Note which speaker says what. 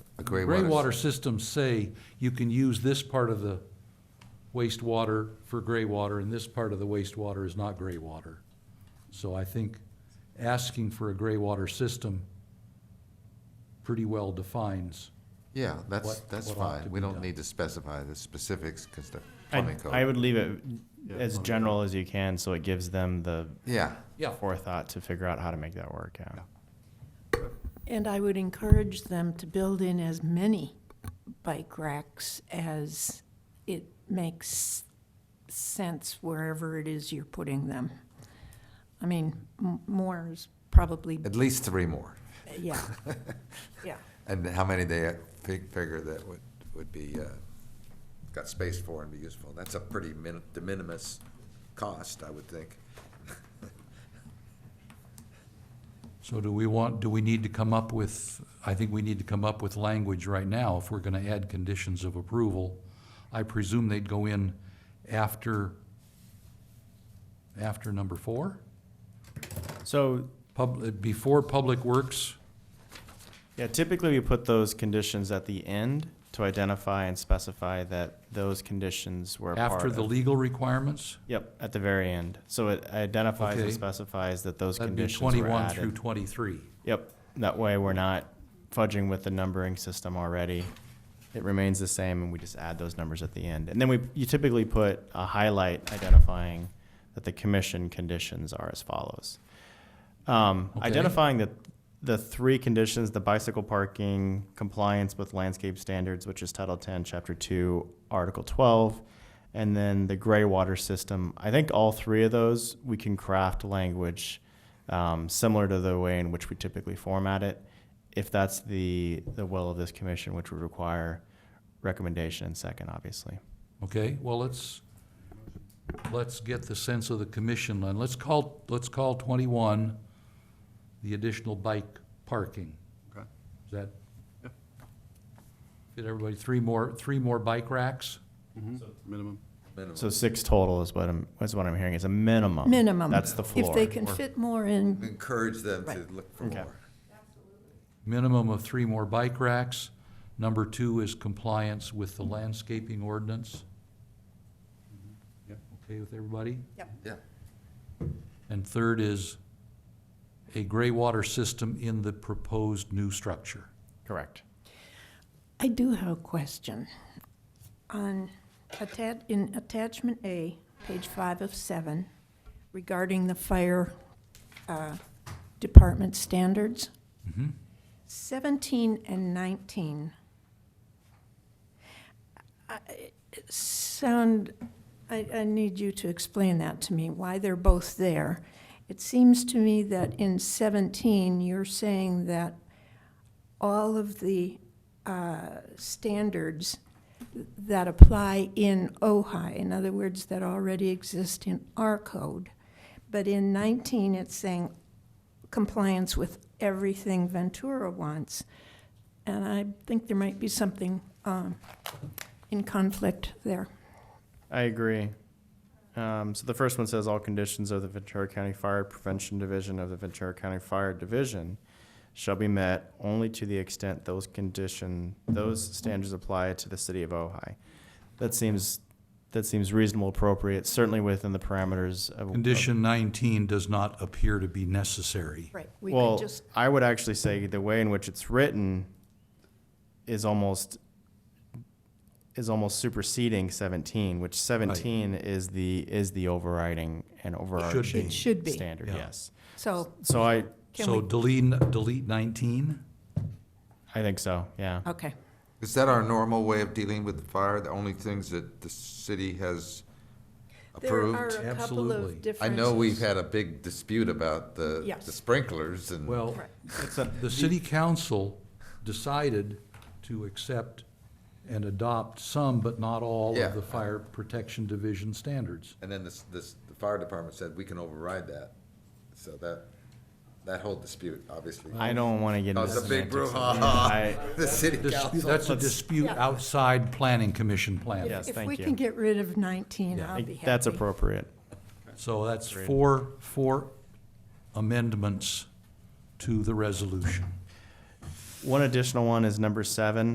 Speaker 1: Gray water.
Speaker 2: Graywater systems say you can use this part of the wastewater for gray water, and this part of the wastewater is not gray water. So I think asking for a gray water system pretty well defines.
Speaker 1: Yeah, that's,
Speaker 2: what-
Speaker 1: that's
Speaker 2: what ought to
Speaker 1: fine. We
Speaker 2: be
Speaker 1: don't
Speaker 2: done.
Speaker 1: need to specify the specifics because the plumbing
Speaker 3: I,
Speaker 1: code.
Speaker 3: I would leave it
Speaker 1: Yeah,
Speaker 3: as
Speaker 1: plumbing
Speaker 3: general as you can, so it gives them the
Speaker 1: Yeah,
Speaker 2: Yeah.
Speaker 3: forethought to figure out how to make that work, yeah.
Speaker 4: And I would encourage them to build in as many bike racks as it makes sense wherever it is you're putting them. I mean, m- more is probably,
Speaker 1: at least three more.
Speaker 4: yeah, yeah.
Speaker 1: And how many they uh, fig- figure that would, would be, uh, got space for and be useful. That's a pretty min, de minimis cost, I would think.
Speaker 2: So do we want, do we need to come up with, I think we need to come up with language right now if we're gonna add conditions of approval. I presume they'd go in after, after number four?
Speaker 3: So,
Speaker 2: Pub, before Public Works,
Speaker 3: yeah, typically we put those conditions at the end to identify and specify that those conditions were part
Speaker 2: after the
Speaker 3: of.
Speaker 2: legal requirements?
Speaker 3: Yep, at the very end. So it identifies
Speaker 2: Okay.
Speaker 3: and specifies that those
Speaker 2: That'd be
Speaker 3: conditions were
Speaker 2: twenty-one through
Speaker 3: added.
Speaker 2: twenty-three.
Speaker 3: Yep, that way we're not fudging with the numbering system already. It remains the same and we just add those numbers at the end. And then we, you typically put a highlight identifying that the commission conditions are as follows. Um,
Speaker 2: Okay.
Speaker 3: identifying that the three conditions, the bicycle parking, compliance with landscape standards, which is Title Ten, Chapter Two, Article Twelve, and then the gray water system. I think all three of those, we can craft language um, similar to the way in which we typically format it, if that's the, the will of this commission, which would require recommendation and second, obviously.
Speaker 2: Okay, well, let's, let's get the sense of the commission, and let's call, let's call twenty-one the additional bike parking.
Speaker 1: Okay.
Speaker 2: Is that? Did everybody, three more, three more bike racks?
Speaker 5: Minimum.
Speaker 3: So six total is what I'm, is what I'm hearing, is a minimum.
Speaker 4: Minimum.
Speaker 3: That's the floor.
Speaker 4: If they can fit more in,
Speaker 1: Encourage them to
Speaker 4: Right.
Speaker 1: look for
Speaker 3: Okay.
Speaker 1: more.
Speaker 2: Minimum of three more bike racks. Number two is compliance with the landscaping ordinance.
Speaker 5: Yep.
Speaker 2: Okay with everybody?
Speaker 1: Yeah,
Speaker 2: And third is a gray water system in the proposed new structure.
Speaker 3: Correct.
Speaker 4: I do have a question. On atta- in attachment A, page five of seven, regarding the fire, uh, department standards.
Speaker 2: Mhm.
Speaker 4: Seventeen and nineteen. I- Sound, I, I need you to explain that to me, why they're both there. It seems to me that in seventeen, you're saying that all of the uh, standards that apply in OHI, in other words, that already exist in our code. But in 19, it's saying compliance with everything Ventura wants. And I think there might be something um, in conflict there.
Speaker 3: I agree. Um, so the first one says all conditions of the Ventura County Fire Prevention Division of the Ventura County Fire Division shall be met only to the extent those condition, those standards apply to the city of Ojai. That seems, that seems reasonable, appropriate, certainly within the parameters of. of-
Speaker 2: Condition nineteen does not appear to be necessary.
Speaker 4: Right. We could
Speaker 3: Well,
Speaker 4: just,
Speaker 3: I would actually say the way in which it's written is almost, is almost superseding seventeen, which seventeen is the, is the overriding and overarching
Speaker 2: be.
Speaker 4: should be.
Speaker 3: standard,
Speaker 2: Yeah.
Speaker 3: yes.
Speaker 4: so
Speaker 3: So I,
Speaker 4: can
Speaker 2: So
Speaker 4: we,
Speaker 2: delete, delete nineteen?
Speaker 3: I think so, yeah.
Speaker 4: okay.
Speaker 1: Is that our normal way of dealing with fire? The only things that the city has approved?
Speaker 4: There are a couple
Speaker 2: Absolutely. I know
Speaker 4: of
Speaker 1: I
Speaker 4: differences.
Speaker 1: know we've had a big dispute about the,
Speaker 4: Yes.
Speaker 1: the sprinklers and.
Speaker 2: Well,
Speaker 4: Right.
Speaker 2: the city council decided to accept and adopt some, but not all,
Speaker 1: Yeah.
Speaker 2: of the fire protection division standards.
Speaker 1: And then this, this, the fire department said, we can override that. So that, that whole dispute, obviously.
Speaker 3: I don't want to get into
Speaker 1: Caused a big
Speaker 3: semantics.
Speaker 1: brouhaha.
Speaker 3: I-
Speaker 1: The city
Speaker 2: Dispute-
Speaker 1: council.
Speaker 2: That's a dispute outside planning commission planning.
Speaker 3: Yes,
Speaker 4: If we
Speaker 3: thank
Speaker 4: can
Speaker 3: you.
Speaker 4: get rid of 19,
Speaker 2: Yeah.
Speaker 3: I
Speaker 4: I'll be
Speaker 3: think
Speaker 4: happy.
Speaker 3: That's appropriate.
Speaker 2: So that's four, four amendments to the resolution.
Speaker 3: One additional one is number seven.